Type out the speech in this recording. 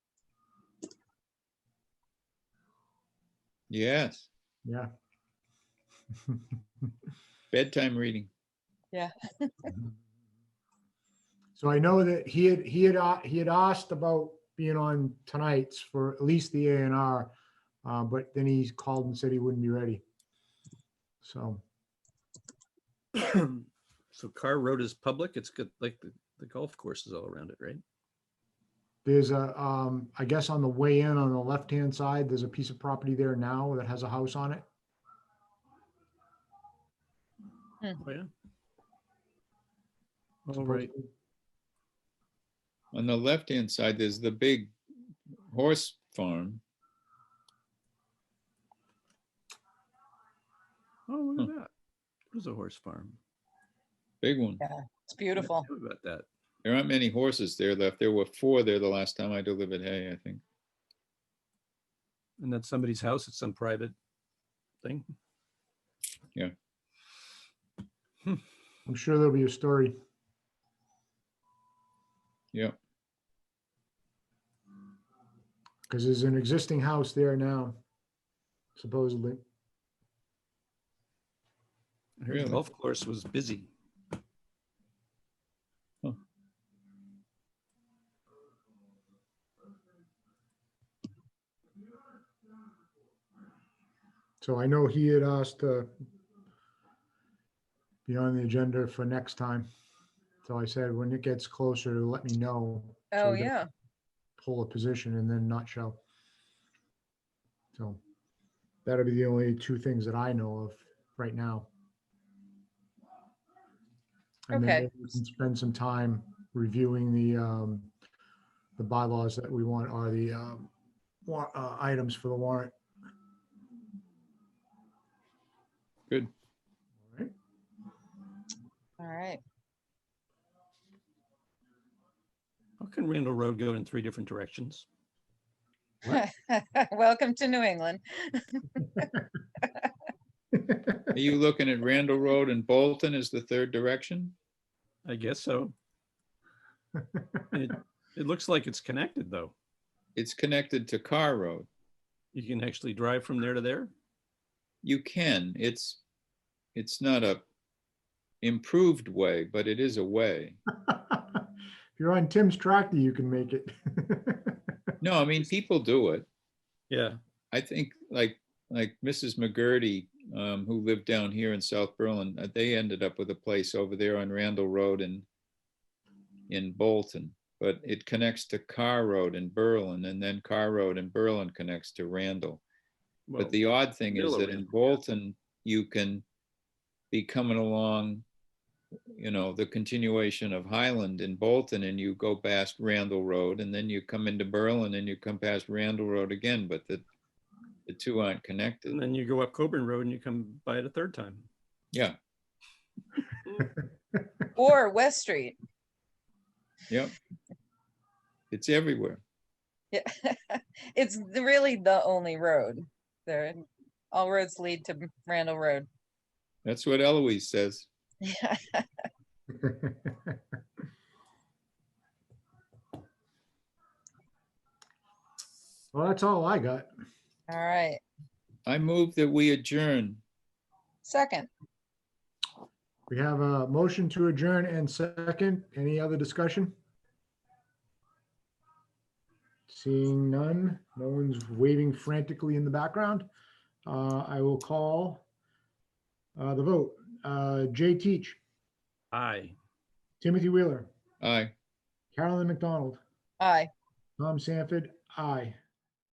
Yes, Yeah. bedtime reading. So I know that he had, he had, a- he had asked about being on tonight's for at least the A and R. Uh, but then he called and said he wouldn't be ready. So, So Car Road is public. It's good, like the, the golf course is all around it, right? There's a, um, I guess on the way in on the left-hand side, there's a piece of property there now that has a house on it. Oh, yeah. All Oh, right. On the left-hand side, there's the big horse farm. Oh, look at that. There's a horse farm. Big one. Yeah. It's I beautiful. knew About that. There aren't many horses there left. There were four there the last time I delivered hay, I think. And that's somebody's house. It's some private thing. I'm sure there'll be a story. Yep. Because there's an existing house there now, supposedly. I heard Really? The golf course was busy. Huh. So I know he had asked to be on the agenda for next time. So I said, when it gets closer, let me know. so Oh, we can yeah. Pull a position and then not show. So that'll be the only two things that I know of right now. And Okay. then maybe we can Spend some time reviewing the, um, the bylaws that we want are the, um, wa- uh, items for the warrant. Good. All right. All right. How can Randall Road go in three different directions? Welcome to New England. Are you looking at Randall Road and Bolton as the third direction? I guess so. It, it looks like it's connected, though. It's connected to Car Road. You can actually drive from there to there. You can, it's, it's not a improved way, but it is a way. If you're on Tim's tractor, you can make it. No, I mean, people do it. Yeah. I think like, like Mrs. McGurty, um, who lived down here in South Berlin, uh, they ended up with a place over there on Randall Road in, in Bolton. But it connects to Car Road in Berlin and then Car Road in Berlin connects to Randall. well, But the odd thing is middle of that in Randall, Bolton, you can be coming along, you know, the continuation of Highland in Bolton and you go past Randall Road and then you come into Berlin and you come past Randall Road again, but the, the two aren't connected. And then you go up Coburn Road and you come by it a third time. Yeah, Or West Street. yep. It's everywhere. Yeah. It's the- really the only road. There, all roads lead to Randall Road. That's what Eloise says. Yeah. Well, that's all I got. All right. I move that we adjourn. Second. We have a motion to adjourn and second. Any other discussion? Seeing none, no one's waving frantically in the background. Uh, I will call uh, the vote. Uh, Jay Teach, Aye. Timothy Wheeler, Aye. Carolyn McDonald, Aye. Tom Sanford, aye.